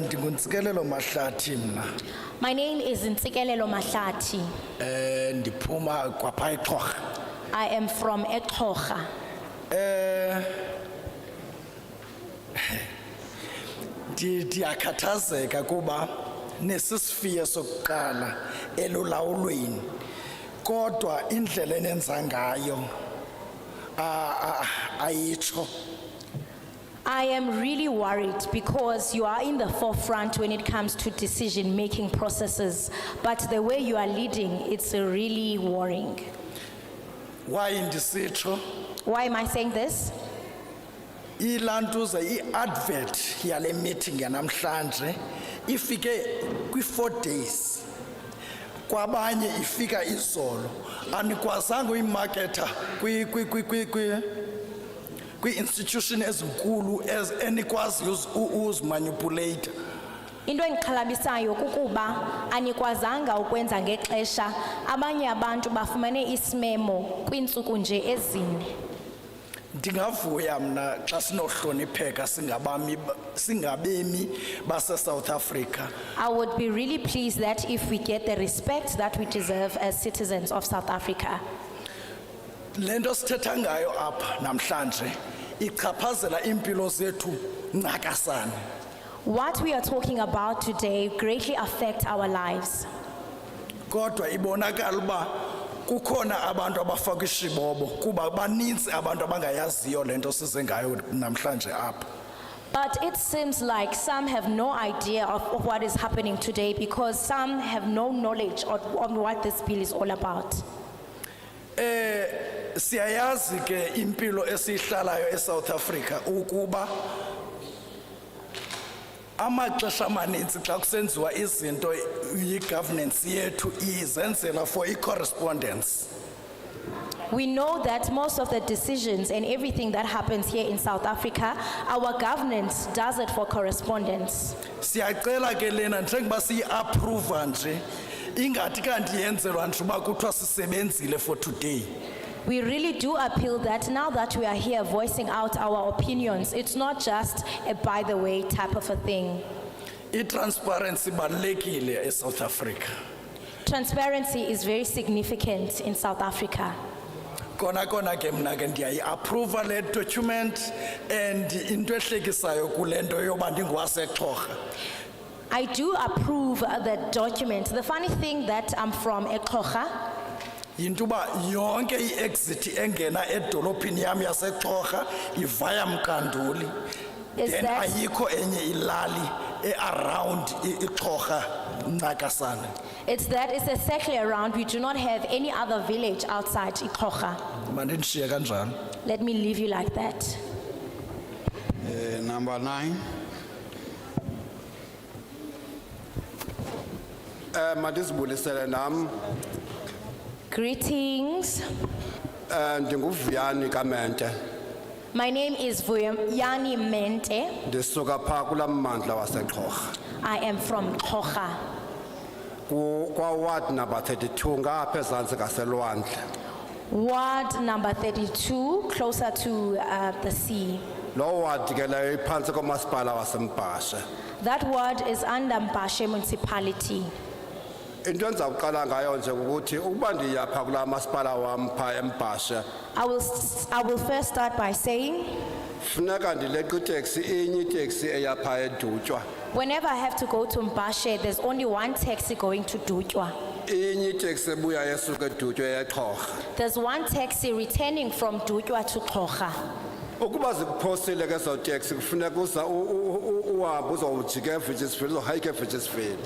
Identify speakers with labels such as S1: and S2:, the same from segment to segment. S1: ntsikelelo mahlathi Eh, mna
S2: My name is Ntsikelelo Mahlati.
S1: um ndiphuma kwapha exhorha
S2: I am from Ekocha.
S1: Eh, Ndi- ndiyakhathazeka kuba nesisifiyo sokuqala elulawulweni kodwa indlela enenza ngayo a- a- ayitsho
S2: I am really worried because you are in the forefront when it comes to decision making processes, but the way you are leading, it's really worrying.
S1: waye ndisitsho
S2: Why am I saying this?
S1: ilantuza i-advert yale meeting yanamhlanje ifike kwi-four days kwabanye ifika izolo anikwazanga uyimaketha kwi- kwi- kwi- kwi- kwi- kwii-institution ezinkulu ez- enikwaziyo uz- u- uzimanipuleyitha
S2: Into engixhalabisayo kukuba anikwazanga ukwenza ngexesha abanye abantu bafumane isimemo kwiintsuku nje ezine.
S1: ndingavuya mna xa sinohlonipheka singabami ba- singabemi basesouth africa
S2: I would be really pleased that if we get the respect that we deserve as citizens of South Africa.
S1: le nto sithetha ngayo apha namhlanje ichaphazela iimpilo zethu ncakasana
S2: What we are talking about today greatly affect our lives.
S1: kodwa ibonakala uba kukhona abantu abafaka ishibobo kuba baninzi abantu abangayaziyo le nto size ngayo namhlanje apha
S2: But it seems like some have no idea of, of what is happening today because some have no knowledge of, on what this bill is all about.
S1: siyayazi ke impilo esiyihlalayo eSouth Africa ukuba amaxesha amanintsi xa kusenziwa izinto i-governance yethu izenzela for i-correspondence
S2: We know that most of the decisions and everything that happens here in South Africa, our governance does it for correspondence.
S1: siyacela ke lena njengoba siyiapprova nje ingathi kanti yenzelwa nje uba kuthiwa sisebenzile for today
S2: We really do appeal that now that we are here voicing out our opinions, it's not just a by the way type of a thing.
S1: i-transparency ibalulekile esouth africa
S2: Transparency is very significant in South Africa.
S1: kona kona ke mna ke ndiyayiapprova le document and into ehlekisayo kule nto yoba ndingowasexhorha
S2: I do approve uh, the document. The funny thing that I'm from Ekocha,
S1: yinto uba yonke i-exit engena edolophini yam yasexhorha ivaya mkanduli
S2: Is
S1: then
S2: that-
S1: ayikho enye ilali earound i- ixhorha ncakasana
S2: it's that it's a circle around. We do not have any other village outside Ekocha.
S1: mandindishiye kanjalo
S2: Let me leave you like that.
S3: Uh, Number nine.
S4: Eh madizibulisele nami
S2: Greetings.
S4: eh ndinguvuyani kaMente
S2: My name is Vuyani Mente.
S4: ndisuka pha kulamandla wasexhorha
S2: I am from Kocha.
S4: ku kwa ward number 32 ngapha ezantsi kaselwandle
S2: Ward number 32, closer to uh, the sea.
S4: lo ward ke leyo iphantsi komasipala wasembhashe
S2: That ward is under Mbashe municipality.
S4: into endiza kuqala ngayo nje ukuthi ukuba ndiyapha kula masipala wam pha embhashe
S2: I will, s- I will first start by saying,
S4: funeka ndileqe iteksi inye iteksi eyapha edutywa
S2: whenever I have to go to Mbashe, there's only one taxi going to Dutwa.
S4: inye iteksi ebuya esuka edutywa eyexhorha
S2: There's one taxi returning from Dutwa to Kocha.
S4: ukuba zikuphosile ke ezo teksi kufuneka uza u- u- u- uhambe uzowujika evigisville uzohayike evigisville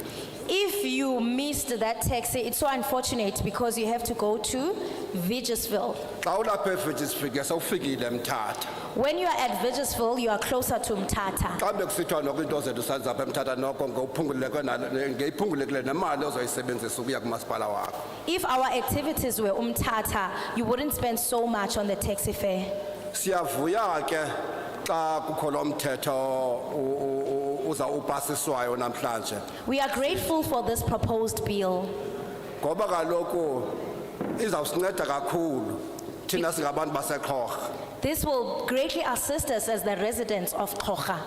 S2: If you missed that taxi, it's so unfortunate because you have to go to Vigisville.
S4: xa ulapha evigisville ke sewufikile mthatha
S2: When you are at Vigisville, you are closer to Mtata.
S4: xa bekusithiwa noko iinto zethu sazapha emthatha noko ngowuphunguleke nalo- ngeyiphungulekile nemali ozoyisebenzisa ukuya kumasipala wakho
S2: If our activities were Umtata, you wouldn't spend so much on the taxi fare.
S4: siyavuya ke xa kukho lo mthetho u- u- u- uza upasiswayo namhlanje
S2: We are grateful for this proposed bill
S4: ngoba kaloku izawusinceda kakhulu thina singabantu baseqhorha
S2: This will greatly assist us as the residents of Kocha.